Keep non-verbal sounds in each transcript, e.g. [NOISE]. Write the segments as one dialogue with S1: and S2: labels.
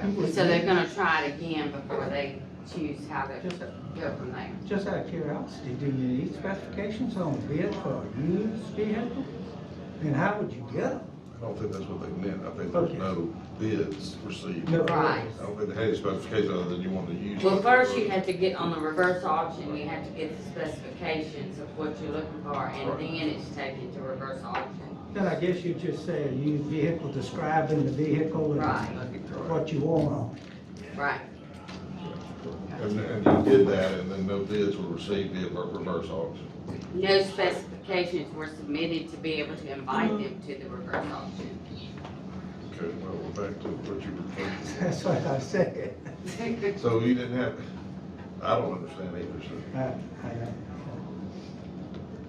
S1: And so they're gonna try it again before they choose how to
S2: Just,
S1: go from there.
S2: just out of curiosity, do you need specifications on bid for a used vehicle? And how would you get them?
S3: I don't think that's what they meant. I think there's
S2: Okay.
S3: no bids received.
S2: No.
S3: I
S1: Right.
S3: don't think they had a specification other than you want to use.
S1: Well, first you had to get on the reverse auction, you had to get the specifications of what you're looking for, and
S3: Right.
S1: then it's taken to reverse auction.
S2: Then I guess you just say a used vehicle, describing the vehicle and
S1: Right,
S2: what you want on it. [LAUGHS]
S1: right.
S3: And, and you did that, and then no bids were received via ver- reverse auction.
S1: No specifications were submitted to be able to invite them to the reverse auction.
S3: Okay, well, we're back to what you were.
S2: That's what I said.
S1: [LAUGHS]
S3: So you didn't have, I don't understand either, so
S2: I- I don't-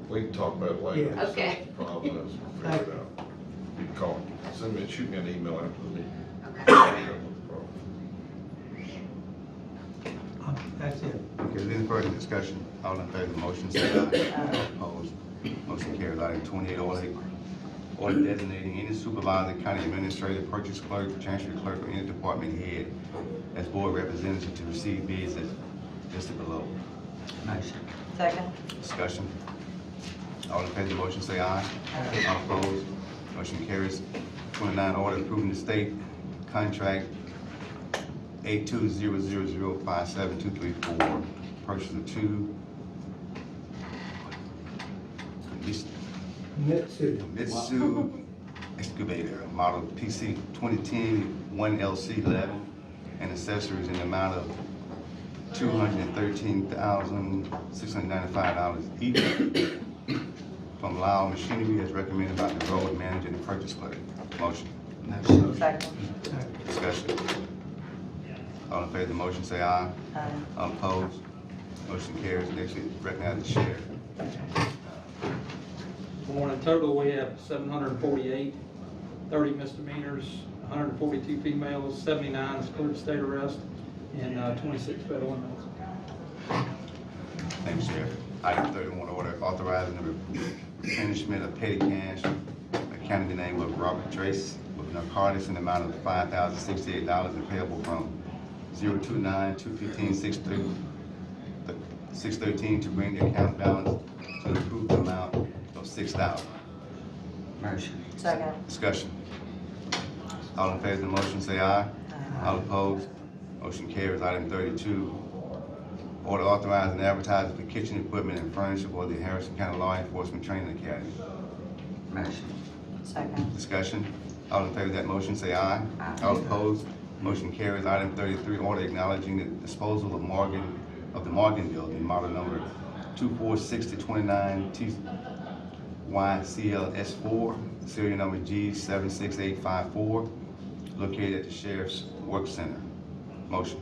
S3: we can talk about it later.
S2: Yeah.
S1: Okay.
S3: Problem is, we'll figure it out. You can call, send me, shoot me an email after
S2: [COUGHS]
S3: the meeting.
S1: Okay.
S2: uh, That's it.
S4: Okay, any further discussion? All in favor of the motion, say aye. Opposed, motion carries. Item twenty-eight, order, order designating any supervisor, county administrator, purchase clerk, chancery clerk, or any department head as board representative to receive bids as listed below.
S5: Second.
S4: Discussion. All in favor of the motion, say aye. All opposed, motion carries. Twenty-nine, order approving the state contract eight two zero zero zero five seven two three four, purchase of two Mis-
S2: Mitsu.
S4: Mitsu excavator, model PC 2010, one LC eleven, and accessories in the amount of two hundred and thirteen thousand, six hundred and ninety-five dollars each from Lyle Machinery as recommended by the road manager and purchase clerk. Motion.
S5: Second.
S4: Discussion. All in favor of the motion, say aye.
S5: Aye.
S4: All Opposed? Motion carries. Next, we recognize the sheriff.
S6: Well, in total, we have 748, 30 misdemeanors, 142 females, 79 is cleared state arrest, and uh, 26 federal inmates.
S4: Thank you, Sheriff. Item thirty-one, order authorizing the replenishment of petty cash, accounting the name of Robert Trace with narcotics in the amount of five thousand sixty-eight dollars and payable from zero two nine, two fifteen, six thirty, six thirteen to bring the account balance to the approved amount of six thousand.
S5: Second.
S4: Discussion. All in favor of the motion, say aye.
S5: Aye.
S4: All opposed, motion carries. Item thirty-two, order authorizing advertising for kitchen equipment and furniture for the Harrison County Law Enforcement Training Academy.
S5: Second.
S4: Discussion. All in favor of that motion, say aye.
S5: Aye.
S4: All opposed, motion carries. Item thirty-three, order acknowledging the disposal of Morgan, of the Morgan Building, model number two-four-six-to-twenty-nine T Y C L S four, serial number G seven-six-eight-five-four, located at the Sheriff's Work Center. Motion.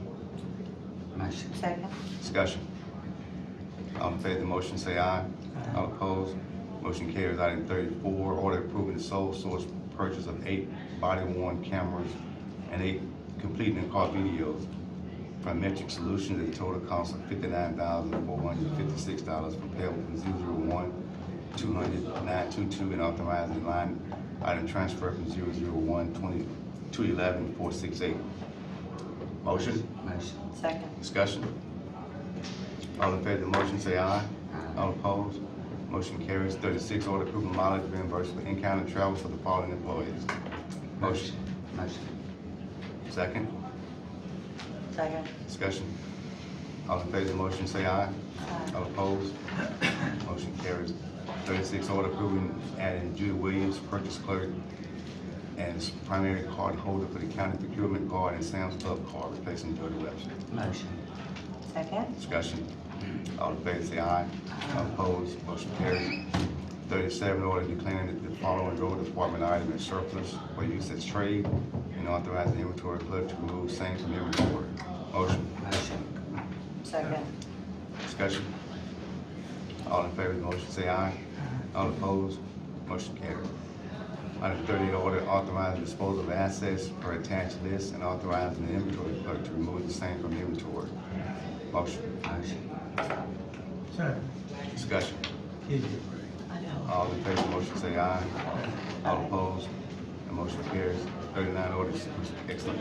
S5: Second.
S4: Discussion. All in favor of the motion, say aye.
S2: Aye.
S4: All opposed, motion carries. Item thirty-four, order approving the sole source purchase of eight body worn cameras and eight complete and car videos from Metric Solutions at a total cost of fifty-nine thousand four hundred and fifty-six dollars from payable from zero zero one two hundred nine two two and authorizing line item transfer from zero zero one twenty two eleven four six eight. Motion? Motion.
S5: Second.
S4: Discussion? All in favor of the motion, say aye. All opposed, motion carries. Thirty-six, order approving mileage reimbursement in county travel for the following employees. Motion. Motion. Second,
S5: Second.
S4: discussion. All in favor of the motion, say aye.
S5: Aye.
S4: All opposed, motion carries. Thirty-six, order approving adding Judy Williams, purchase clerk, as primary card holder for the county procurement guard and Sam's Club card, replacing Jody Webster.
S5: Second.
S4: Discussion. All in favor, say aye. All opposed, motion carries. Thirty-seven, order declaring that the following road department item is surplus for use as trade and authorizing the inventory clerk to remove same from inventory. Motion.
S5: Second.
S4: Discussion. All in favor of the motion, say aye. All opposed, motion carries. Item thirty, order authorizing disposal of assets per attached list and authorizing the inventory clerk to remove the same from inventory. Motion. Motion.
S2: Sorry,
S4: Discussion.
S2: excuse me.
S5: I know.
S4: All in favor of the motion, say aye. All opposed, the motion carries. Thirty-nine orders, excellent.